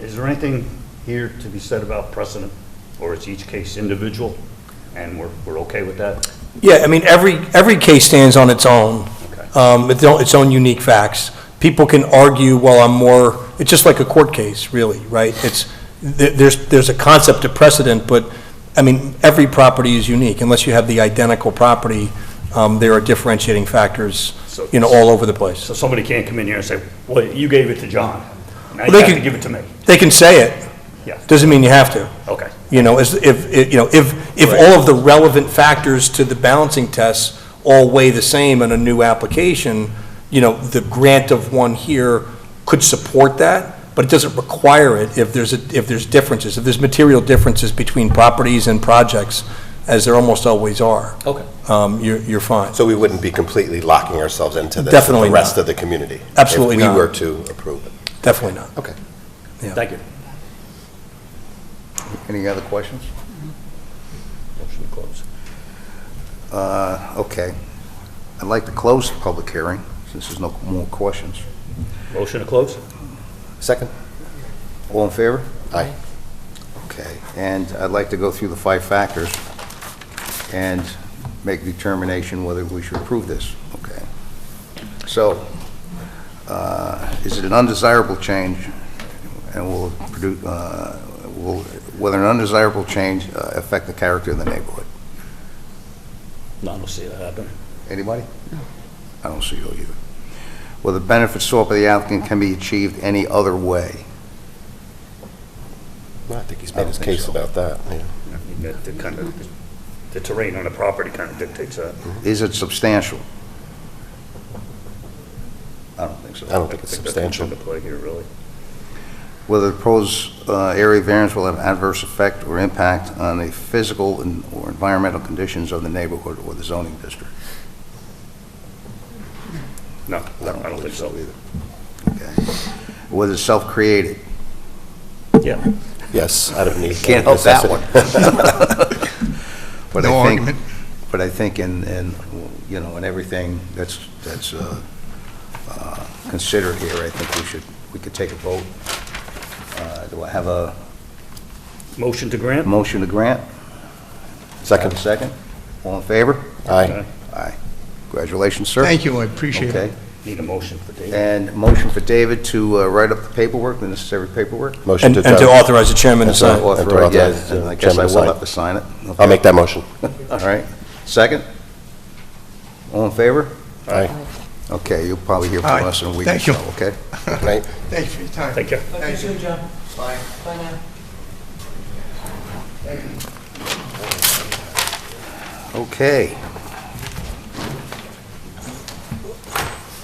Is there anything here to be said about precedent, or is each case individual, and we're, we're okay with that? Yeah, I mean, every, every case stands on its own, Okay. um, its own, its own unique facts. People can argue, well, I'm more, it's just like a court case, really, right? It's, th- there's, there's a concept of precedent, but, I mean, every property is unique, unless you have the identical property, um, there are differentiating factors, So- you know, all over the place. So somebody can't come in here and say, well, you gave it to John, now you They have to can- give it to me. They can say it. Yeah. Doesn't mean you have to. Okay. You know, as, if, if- you know, if, if Right. all of the relevant factors to the balancing tests all weigh the same in a new application, you know, the grant of one here could support that, but it doesn't require it if there's, a- if there's differences, if there's material differences between properties and projects, as there almost always are. Okay. Um, you're, you're fine. So we wouldn't be completely locking ourselves into this. Definitely The rest not. of the community. Absolutely If not. we were to approve it. Definitely not. Okay. Yeah. Thank you. Any other questions? Motion to close. Uh, Okay. I'd like to close the public hearing, since there's no more questions. Motion to close? Second? All in favor? Aye. Okay. And I'd like to go through the five factors and make determination whether we should approve this. Okay. So, uh, is it an undesirable change and will produce, will, whether an undesirable change uh, affect the character of the neighborhood? No, I don't see that happen. Anybody? I don't see you either. Well, the benefits sought by the applicant can be achieved any other way. Well, I think he's I made don't his think case so. about that. yeah. I mean, that- that kind of, the terrain on the property kind of dictates that. Is it substantial? I don't think so. I don't think it's substantial. That's into play here, really. Whether the proposed uh, area variance will have adverse effect or impact on the physical and- or environmental conditions of the neighborhood or the zoning district. No, I don't think so. either. Okay. Whether it's self-created. Yeah. Yes, out of need. Can't help that one. But I think, but I think in, in, you know, in everything that's, that's uh, uh, considered here, I think we should, we could take a vote. Uh, Do I have a Motion to grant? motion to grant? Have a Second? Second? All in favor? Aye. Aye. Congratulations, sir. Thank you, I appreciate it. Okay. Need a motion for David? And motion for David to uh, write up the paperwork, the necessary paperwork? Motion And, to. and to adopt. authorize the chairman to That's right. sign. have to Authorize, authorize yeah, and I the guess I uh, chairman to will sign. have to sign it. I'll make that motion. All right. Second? All in favor? Aye. Okay, you'll probably hear All right. from us in a week or Thank you. so, okay? Right? Thank you for your time. Take care. Thank you. Okay.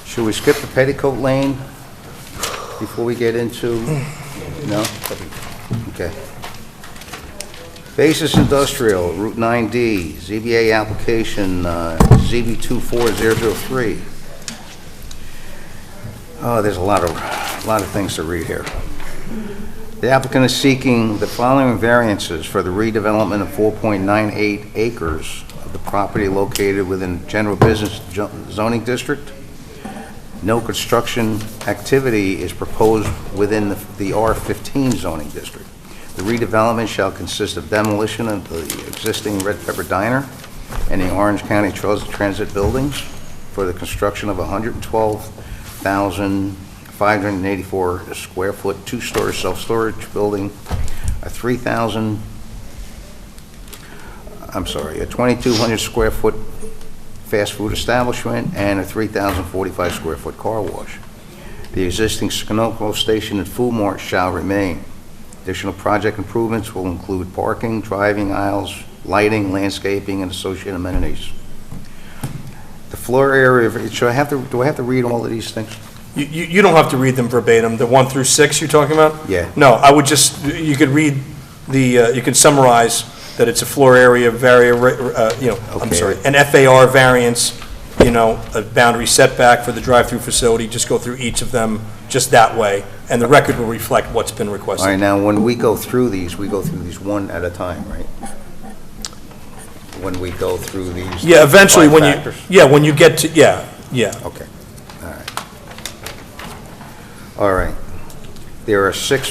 Should we skip the petticoat lane before we get into, no? Okay. Basis Industrial, Route 9D, ZBA application uh, ZB 24003. Oh, there's a lot of, a lot of things to read here. The applicant is seeking the following variances for the redevelopment of 4.98 acres of the property located within general business jo- zoning district. No construction activity is proposed within the the R15 zoning district. The redevelopment shall consist of demolition of the existing Red Pepper Diner and the Orange County Tros- Transit buildings for the construction of 112,000 584 square foot, two-story self-storage building, a 3,000, I'm sorry, a 2,200 square foot fast food establishment, and a 3,045 square foot car wash. The existing Sunoco station and food mart shall remain. Additional project improvements will include parking, driving aisles, lighting, landscaping, and associated amenities. The floor area, should I have to, do I have to read all of these things? You, you you don't have to read them verbatim, the one through six you're talking about? Yeah. No, I would just, you could read the, uh, you could summarize that it's a floor area vari, uh, you know, I'm Okay. sorry, an FAR variance, you know, a boundary setback for the drive-through facility, just go through each of them just that way, and the record will reflect what's been All right, requested. now, when we go through these, we go through these one at a time, right? When we go through these. Yeah, eventually, when five you, factors. yeah, when you get to, yeah, yeah. Okay, all right. All right. There are six